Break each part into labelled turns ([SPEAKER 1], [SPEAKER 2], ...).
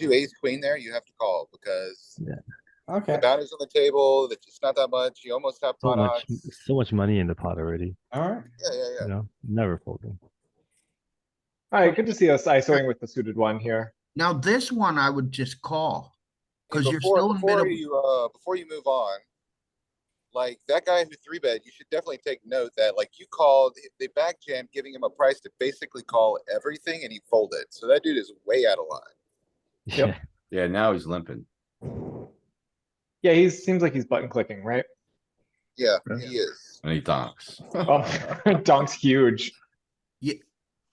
[SPEAKER 1] do ace queen there, you have to call because the
[SPEAKER 2] Okay,
[SPEAKER 1] bounty's on the table, that it's not that much, you almost have
[SPEAKER 3] So
[SPEAKER 1] pot
[SPEAKER 3] much,
[SPEAKER 1] odds.
[SPEAKER 3] so much money in the pot already,
[SPEAKER 2] alright.
[SPEAKER 1] Yeah, yeah, yeah.
[SPEAKER 3] you know, never folding.
[SPEAKER 4] Alright, good to see us ISOing with the suited one here.
[SPEAKER 5] Now, this one I would just call.
[SPEAKER 1] And
[SPEAKER 5] 'Cause you're
[SPEAKER 1] before-
[SPEAKER 5] still in
[SPEAKER 1] Before
[SPEAKER 5] middle-
[SPEAKER 1] you, uh, before you move on, like that guy who three bet, you should definitely take note that like you called, they back jammed, giving him a price to basically call everything and he folded. So that dude is way out of line.
[SPEAKER 4] Yep.
[SPEAKER 3] Yeah,
[SPEAKER 6] Yeah, now he's limping.
[SPEAKER 4] Yeah, he seems like he's button clicking, right?
[SPEAKER 1] Yeah,
[SPEAKER 5] Yeah.
[SPEAKER 1] he is.
[SPEAKER 6] And he donks.
[SPEAKER 4] Oh, Donk's huge.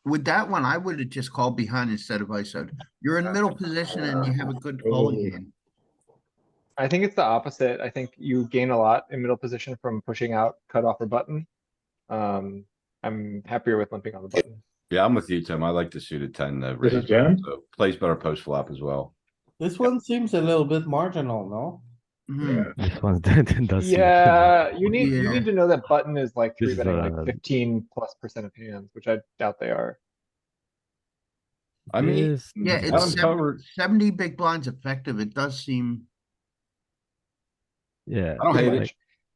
[SPEAKER 5] With that one, I would have just called behind instead of ISO. You're in middle position and you have a good calling hand.
[SPEAKER 4] I think it's the opposite. I think you gain a lot in middle position from pushing out cutoff or button. Um, I'm happier with limping on the button.
[SPEAKER 6] Yeah, I'm with you, Tim. I like the suited ten that raises,
[SPEAKER 7] jam?
[SPEAKER 6] so plays better post flop as well.
[SPEAKER 2] This one seems a little bit marginal, no?
[SPEAKER 5] Mhm.
[SPEAKER 3] This one's dead, does. seem-
[SPEAKER 4] Yeah, you need, you
[SPEAKER 5] Yeah.
[SPEAKER 4] need to know that button is like
[SPEAKER 3] This
[SPEAKER 4] three
[SPEAKER 3] is
[SPEAKER 4] betting
[SPEAKER 3] what I
[SPEAKER 4] like
[SPEAKER 3] love.
[SPEAKER 4] fifteen plus percent of hands, which I doubt they are.
[SPEAKER 6] I mean,
[SPEAKER 3] This-
[SPEAKER 5] Yeah,
[SPEAKER 3] this
[SPEAKER 5] it's
[SPEAKER 3] one-
[SPEAKER 5] seven- seventy big blinds effective. It does seem,
[SPEAKER 3] Yeah.
[SPEAKER 6] I don't hate
[SPEAKER 3] like,
[SPEAKER 6] it.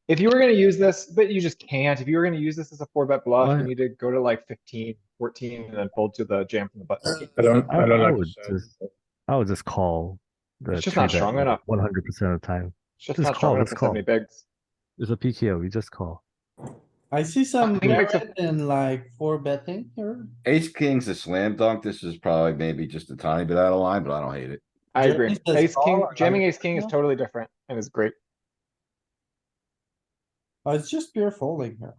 [SPEAKER 4] If you were gonna use this, but you just can't, if you were gonna use this as a four bet bluff,
[SPEAKER 3] Why?
[SPEAKER 4] you need to go to like 15, 14, and then fold to the jam from the button.
[SPEAKER 7] I don't,
[SPEAKER 3] I-
[SPEAKER 7] I don't
[SPEAKER 3] I
[SPEAKER 7] like
[SPEAKER 3] would
[SPEAKER 7] this. hand.
[SPEAKER 3] just- I would just call. the
[SPEAKER 4] It's just not
[SPEAKER 3] three-bet
[SPEAKER 4] strong enough.
[SPEAKER 3] One hundred percent of the time.
[SPEAKER 4] It's just
[SPEAKER 3] Let's
[SPEAKER 4] not
[SPEAKER 3] call,
[SPEAKER 4] strong enough
[SPEAKER 3] let's
[SPEAKER 4] for so many bigs.
[SPEAKER 3] It's a PKO, we just call.
[SPEAKER 2] I see some
[SPEAKER 4] think it's a-
[SPEAKER 2] merit in like four betting here.
[SPEAKER 6] ace king's a slam dunk. This is probably maybe just a tiny bit out of line, but I don't hate it.
[SPEAKER 4] I
[SPEAKER 2] Jeremy
[SPEAKER 4] agree.
[SPEAKER 2] says
[SPEAKER 4] Ace king,
[SPEAKER 2] call, I-
[SPEAKER 4] jamming ace king is
[SPEAKER 2] Yeah.
[SPEAKER 4] totally different and is great.
[SPEAKER 2] Oh, it's just pure folding here.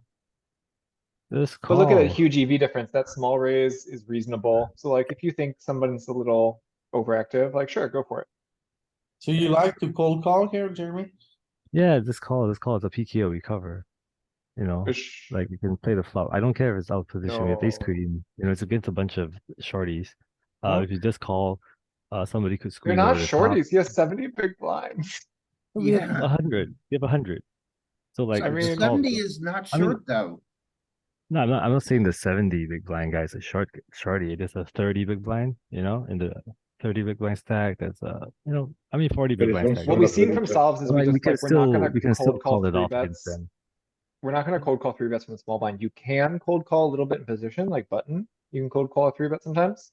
[SPEAKER 3] Just
[SPEAKER 4] But
[SPEAKER 3] call.
[SPEAKER 4] look at that huge EV difference. That small raise is reasonable. So like, if you think someone's a little overactive, like, sure, go for it.
[SPEAKER 2] So you like to cold call here, Jeremy?
[SPEAKER 3] Yeah, just call, just call, it's a PKO, we cover. You know,
[SPEAKER 4] Which-
[SPEAKER 3] like you can play the flop, I don't care if it's out of position, we have ace
[SPEAKER 4] No.
[SPEAKER 3] queen, you know, it's against a bunch of shorties. Uh,
[SPEAKER 2] No.
[SPEAKER 3] if you just call, uh, somebody could squeeze.
[SPEAKER 4] You're not
[SPEAKER 3] over the top.
[SPEAKER 4] shorties. He has seventy big blinds.
[SPEAKER 3] We have
[SPEAKER 5] Yeah.
[SPEAKER 3] a hundred. We have a hundred. Oh, So like,
[SPEAKER 4] I
[SPEAKER 3] it's
[SPEAKER 4] mean-
[SPEAKER 3] called-
[SPEAKER 5] seventy is not
[SPEAKER 3] I mean-
[SPEAKER 5] short though.
[SPEAKER 3] no, I'm not. I'm not saying the seventy big blind guys a short shorty. It is a thirty big blind. You know, in the thirty big blind stack. That's a you know, I mean forty
[SPEAKER 7] But
[SPEAKER 3] big
[SPEAKER 7] it's
[SPEAKER 3] blind
[SPEAKER 7] also
[SPEAKER 3] stack.
[SPEAKER 4] What
[SPEAKER 7] Well,
[SPEAKER 4] we've
[SPEAKER 7] that's
[SPEAKER 4] seen
[SPEAKER 7] really
[SPEAKER 4] from
[SPEAKER 7] good.
[SPEAKER 4] solves is we
[SPEAKER 3] Like, we
[SPEAKER 4] just
[SPEAKER 3] can
[SPEAKER 4] like, we're not
[SPEAKER 3] still
[SPEAKER 4] gonna
[SPEAKER 3] we can still
[SPEAKER 4] cold call
[SPEAKER 3] call it
[SPEAKER 4] three
[SPEAKER 3] off against
[SPEAKER 4] bets.
[SPEAKER 3] them.
[SPEAKER 4] We're not gonna cold call three bets from the small blind. You can cold call a little bit in position, like button. You can cold call a three bet sometimes.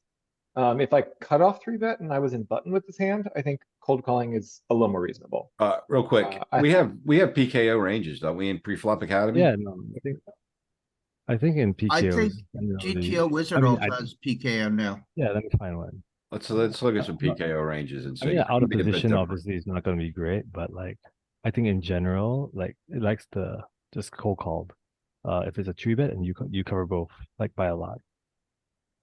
[SPEAKER 4] Um, if I cut off three bet and I was in button with this hand, I think cold calling is a little more reasonable.
[SPEAKER 6] Uh, real quick,
[SPEAKER 4] Uh, I-
[SPEAKER 6] we have, we have PKO ranges, don't we, in pre-flop academy?
[SPEAKER 3] Yeah, no, I think. I think in PKO.
[SPEAKER 5] think GTO Wizard
[SPEAKER 3] mean,
[SPEAKER 5] all
[SPEAKER 3] I-
[SPEAKER 5] does PKO now.
[SPEAKER 3] Yeah, let me find one.
[SPEAKER 6] Let's, let's look at some
[SPEAKER 3] I'm not-
[SPEAKER 6] PKO ranges and
[SPEAKER 3] I
[SPEAKER 6] see.
[SPEAKER 3] mean, Oh, out of
[SPEAKER 6] Make it a bit
[SPEAKER 3] position
[SPEAKER 6] different.
[SPEAKER 3] obviously is not going to be great, but like I think in general, like it likes to just cold call. Uh, if it's a three bet and you co- you cover both like by a lot.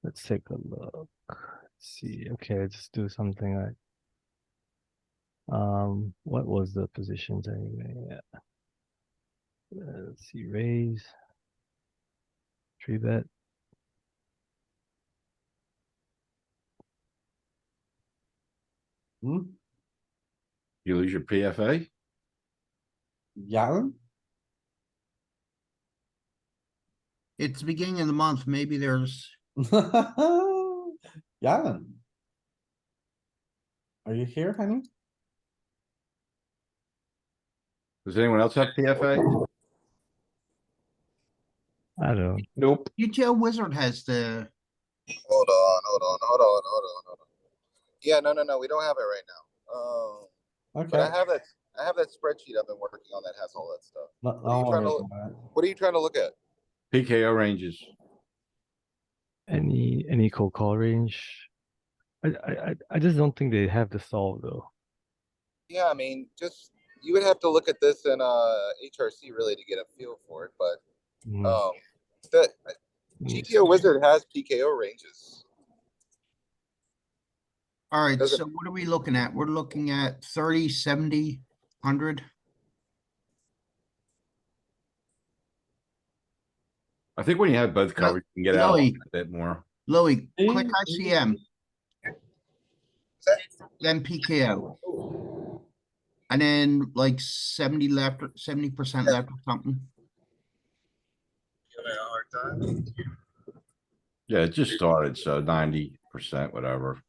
[SPEAKER 3] Let's take a look. Let's see, okay, let's just do something like. Um, what was the positions anyway? Yeah. Uh, Let's see, raise. Three bet.
[SPEAKER 2] Hmm,
[SPEAKER 6] You lose your PFA?
[SPEAKER 2] Galen?
[SPEAKER 5] It's the beginning of the month. Maybe there's,
[SPEAKER 2] Galen? Are you here, honey?
[SPEAKER 6] Does anyone else have PFA?
[SPEAKER 3] I don't know.
[SPEAKER 4] Nope.
[SPEAKER 5] GTO Wizard has the,
[SPEAKER 1] Hold on, hold on, hold on, hold on, hold on. Yeah, no, no, no, we don't have it right now. Um, but
[SPEAKER 2] Okay.
[SPEAKER 1] I have that, I have that spreadsheet I've been working on that has all that stuff.
[SPEAKER 2] No-
[SPEAKER 1] are you
[SPEAKER 2] no
[SPEAKER 1] trying to-
[SPEAKER 2] worries about it.
[SPEAKER 1] What are you trying to look at?
[SPEAKER 6] PKO ranges.
[SPEAKER 3] Any any cold call range? I I I- I just don't think they have the solve though.
[SPEAKER 1] Yeah, I mean, just, you would have to look at this in, uh, HRC really to get a feel for it, but,
[SPEAKER 3] Mm,
[SPEAKER 1] um, the,
[SPEAKER 3] let me
[SPEAKER 1] GTO
[SPEAKER 3] see.
[SPEAKER 1] Wizard has PKO ranges.
[SPEAKER 5] alright,
[SPEAKER 1] Doesn't-
[SPEAKER 5] so what are we looking at? We're looking at 30, 70, 100.
[SPEAKER 6] I think when you have both covered, you can get out a
[SPEAKER 5] Billy.
[SPEAKER 6] bit more.
[SPEAKER 5] Louis,
[SPEAKER 2] See?
[SPEAKER 5] click ICM. Then PKO. And then like seventy left, seventy percent left or something.
[SPEAKER 6] Yeah, it just started, so ninety percent, whatever.